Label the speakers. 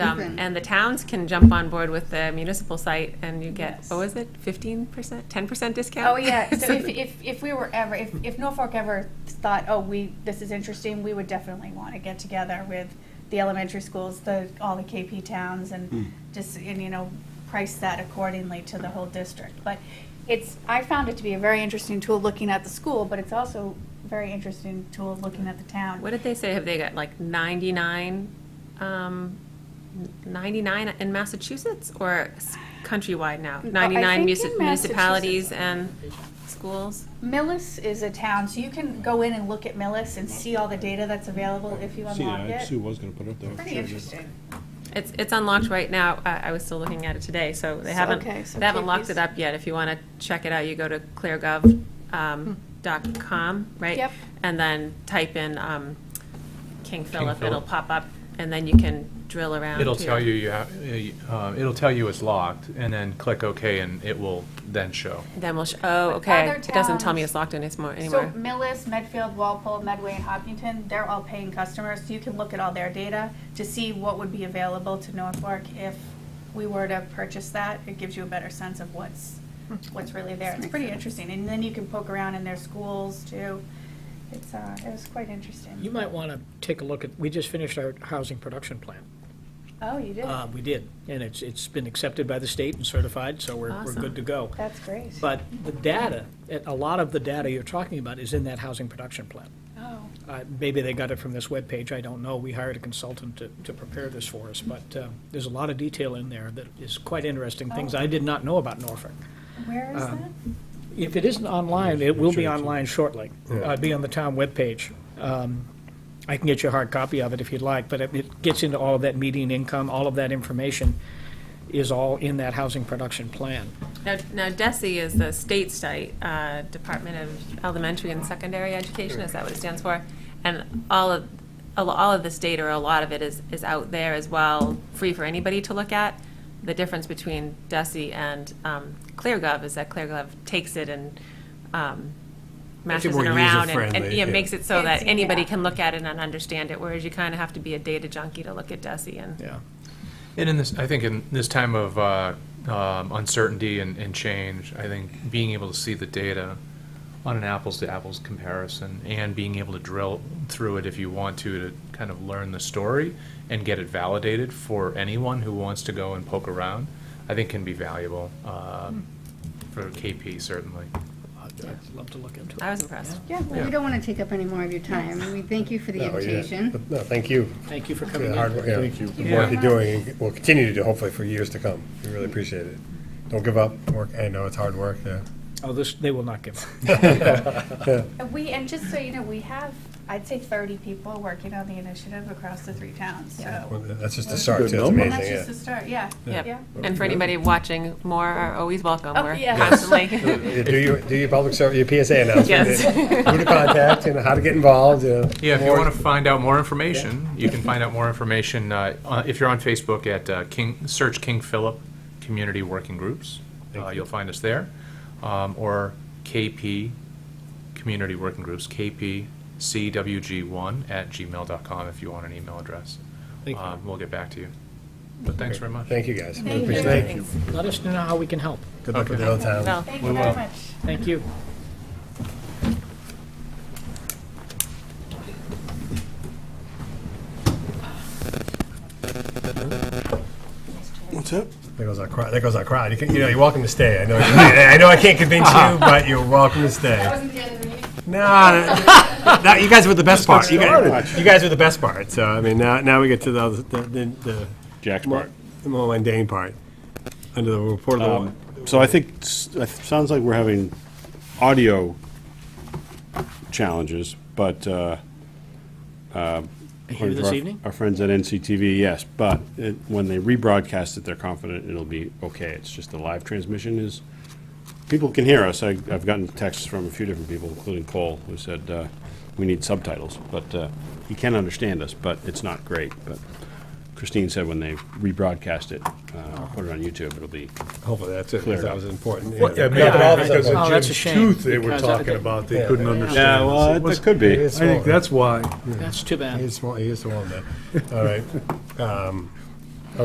Speaker 1: um, and the towns can jump on board with the municipal site, and you get,
Speaker 2: Yes.
Speaker 1: what was it, fifteen percent, ten percent discount?
Speaker 2: Oh, yeah, so if, if, if we were ever, if, if Norfolk ever thought, oh, we, this is interesting, we would definitely want to get together with the elementary schools, the, all the KP towns,
Speaker 3: Hmm.
Speaker 2: and just, and, you know, price that accordingly to the whole district. But it's, I found it to be a very interesting tool looking at the school, but it's also a very interesting tool looking at the town.
Speaker 1: What did they say, have they got like ninety-nine, um, ninety-nine in Massachusetts, or s- countrywide now?
Speaker 2: oh, I
Speaker 1: Ninety-nine
Speaker 2: think in
Speaker 1: munis- municipalities and schools?
Speaker 2: Millis is a town, so you can go in and look at Millis and see all the data that's available if you
Speaker 3: See,
Speaker 2: unlock
Speaker 3: I- Sue
Speaker 2: it.
Speaker 3: was gonna put it up there.
Speaker 2: Pretty interesting.
Speaker 1: It's, it's unlocked right now. I, I was still looking at it today, so they
Speaker 2: So-
Speaker 1: haven't,
Speaker 2: okay, so
Speaker 1: they haven't
Speaker 2: keep
Speaker 1: locked
Speaker 2: these-
Speaker 1: it up yet. If you want to check it out, you go to cleargov, um, dot com, right?
Speaker 2: Hmm. Yep.
Speaker 1: And then type in, um, King Philip, it'll
Speaker 4: Philip.
Speaker 1: pop up, and then you can drill around.
Speaker 4: It'll
Speaker 1: to-
Speaker 4: tell you, you have- uh, it'll tell you it's locked, and then click OK, and it will then show.
Speaker 1: Then we'll, sh- oh,
Speaker 2: Other
Speaker 1: okay. It doesn't tell me
Speaker 2: towns-
Speaker 1: it's locked in anymore,
Speaker 2: So
Speaker 1: anymore.
Speaker 2: Millis, Medfield, Walpole, Medway, and Hopkinton, they're all paying customers, so you can look at all their data to see what would be available to Norfolk if we were to purchase that. It gives you a better sense of what's, what's really there. It's pretty interesting, and then you can poke around in their schools too. It's, uh, it was quite
Speaker 5: You
Speaker 2: interesting.
Speaker 5: might want to take a look at, we just finished our housing production plan.
Speaker 2: Oh, you did?
Speaker 5: Uh, We did, and it's, it's been accepted by the state and certified, so we're, we're
Speaker 1: Awesome.
Speaker 5: good to go.
Speaker 2: That's great.
Speaker 5: But the data, a- a lot of the data you're talking about is in that housing production plan.
Speaker 2: Oh,
Speaker 5: Uh, Maybe they got it from this webpage, I don't know. We hired a consultant to, to prepare this for us, but uh, there's a lot of detail in there that is quite interesting, things
Speaker 2: Oh.
Speaker 5: I did not know about Norfolk.
Speaker 2: where is
Speaker 5: Um,
Speaker 2: that?
Speaker 5: If it isn't online, it will
Speaker 3: Sure,
Speaker 5: be
Speaker 3: it's-
Speaker 5: online shortly. Uh, It'll be on the town webpage. Um, I can get you a hard copy of it if you'd like, but it- it gets into all of that median income, all of that information is all in that housing production plan.
Speaker 1: Now, now DESI is the state site, uh, Department of Elementary and Secondary Education, is that what it stands for? And all of, a lo- all of this data, or a lot of it is, is out there as well, free for anybody to look at. The difference between DESI and um, ClearGov is that ClearGov takes it and um, mashes
Speaker 3: more
Speaker 1: it around and- and,
Speaker 3: user-friendly,
Speaker 1: yeah,
Speaker 3: yeah.
Speaker 1: makes it so that
Speaker 2: It's-
Speaker 1: anybody
Speaker 2: yeah.
Speaker 1: can look at it and understand it, whereas you kind of have to be a data junkie to look at DESI and.
Speaker 5: Yeah.
Speaker 4: And in this, I think in this time of uh, um, uncertainty and, and change, I think being able to see the data on an apples-to-apples comparison and being able to drill through it if you want to, to kind of learn the story and get it validated for anyone who wants to go and poke around, I think can be valuable um, for KP certainly.
Speaker 5: I'd I'd love to look into it.
Speaker 1: I was impressed.
Speaker 6: Yeah, well, we don't want to take up any more of your time. We thank you for the
Speaker 7: No, yeah.
Speaker 6: invitation.
Speaker 7: No, thank you
Speaker 5: Thank you for
Speaker 7: for
Speaker 5: coming
Speaker 7: the
Speaker 5: in.
Speaker 7: hard work, yeah,
Speaker 3: Thank you.
Speaker 7: the work you're doing, and will continue to do hopefully for years to come. We really appreciate it. Don't give up, work, I know it's hard work, yeah.
Speaker 5: Oh, this, they will not give up.
Speaker 2: And Uh, We, and just so you know, we have, I'd say thirty people working on the initiative across the three towns,
Speaker 7: Well,
Speaker 2: so.
Speaker 7: That's just the start, too, it's
Speaker 2: And Oh. that's
Speaker 7: amazing,
Speaker 2: just
Speaker 7: yeah.
Speaker 2: the start, yeah, yeah.
Speaker 1: Yep. And for anybody watching, more are always welcome.
Speaker 2: Oh,
Speaker 1: We're
Speaker 2: yeah.
Speaker 1: constantly.
Speaker 7: Yeah, Do your, do your public service, your PSA announcement,
Speaker 1: Yes.
Speaker 7: who to contact, and how to get involved, you know.
Speaker 4: Yeah, if you
Speaker 7: more-
Speaker 4: want to find out more information, you can find out more information uh, on- if you're on Facebook at uh, King, search King Philip Community Working Groups. Uh, You'll find us there. Um, Or KP Community Working Groups, KPCWG1 at gmail.com if you want an email address.
Speaker 5: Thank you.
Speaker 4: Um, We'll get back to you. But thanks very much.
Speaker 7: Thank you, guys. We
Speaker 2: you.
Speaker 7: appreciate it.
Speaker 2: Thank
Speaker 1: Thanks.
Speaker 5: Let us know how we can help.
Speaker 7: Good luck with the old town.
Speaker 1: Well,
Speaker 2: Thank you very much.
Speaker 5: Thank you.
Speaker 3: What's up?
Speaker 7: There goes our crowd, there goes our crowd. You can, you know, you're welcome to stay, I know, I know I can't convince you, but you're welcome to stay.
Speaker 2: Wasn't the end of the meeting?
Speaker 7: No, that- that- you guys were the best part. You guys, you guys were the best part, so, I mean, now, now we get to the, other- the, the- the
Speaker 3: Jack's
Speaker 7: More-
Speaker 3: part.
Speaker 7: The more mundane part, under the report
Speaker 8: Um,
Speaker 7: of the.
Speaker 3: So I think, s- it sounds like we're having audio challenges, but, uh,
Speaker 5: Here
Speaker 3: according to
Speaker 5: this
Speaker 3: our-
Speaker 5: evening?
Speaker 3: Our friends at NCTV, yes, but it- when they rebroadcast it, they're confident it'll be okay. It's just the live transmission is, people can hear us. I- I've gotten texts from a few different people, including Cole, who said, uh, we need subtitles, but uh, he can understand us, but it's not great. But Christine said when they rebroadcast it, uh, put it on YouTube, it'll be
Speaker 7: Hopefully, that's it, because
Speaker 3: Cleared
Speaker 7: that
Speaker 3: up.
Speaker 7: was important.
Speaker 8: Well, yeah,
Speaker 7: yeah.
Speaker 8: maybe
Speaker 5: Yeah.
Speaker 8: because
Speaker 5: Oh,
Speaker 8: of
Speaker 5: that's a
Speaker 8: Jim's
Speaker 5: shame,
Speaker 8: tooth they were
Speaker 5: because I
Speaker 8: talking
Speaker 5: think-
Speaker 8: about, they couldn't
Speaker 3: Yeah,
Speaker 8: understand.
Speaker 3: well,
Speaker 8: It was-
Speaker 3: that could be.
Speaker 8: I think that's why.
Speaker 5: That's too
Speaker 7: He
Speaker 5: bad.
Speaker 7: is small, he is small, man. All right. Um,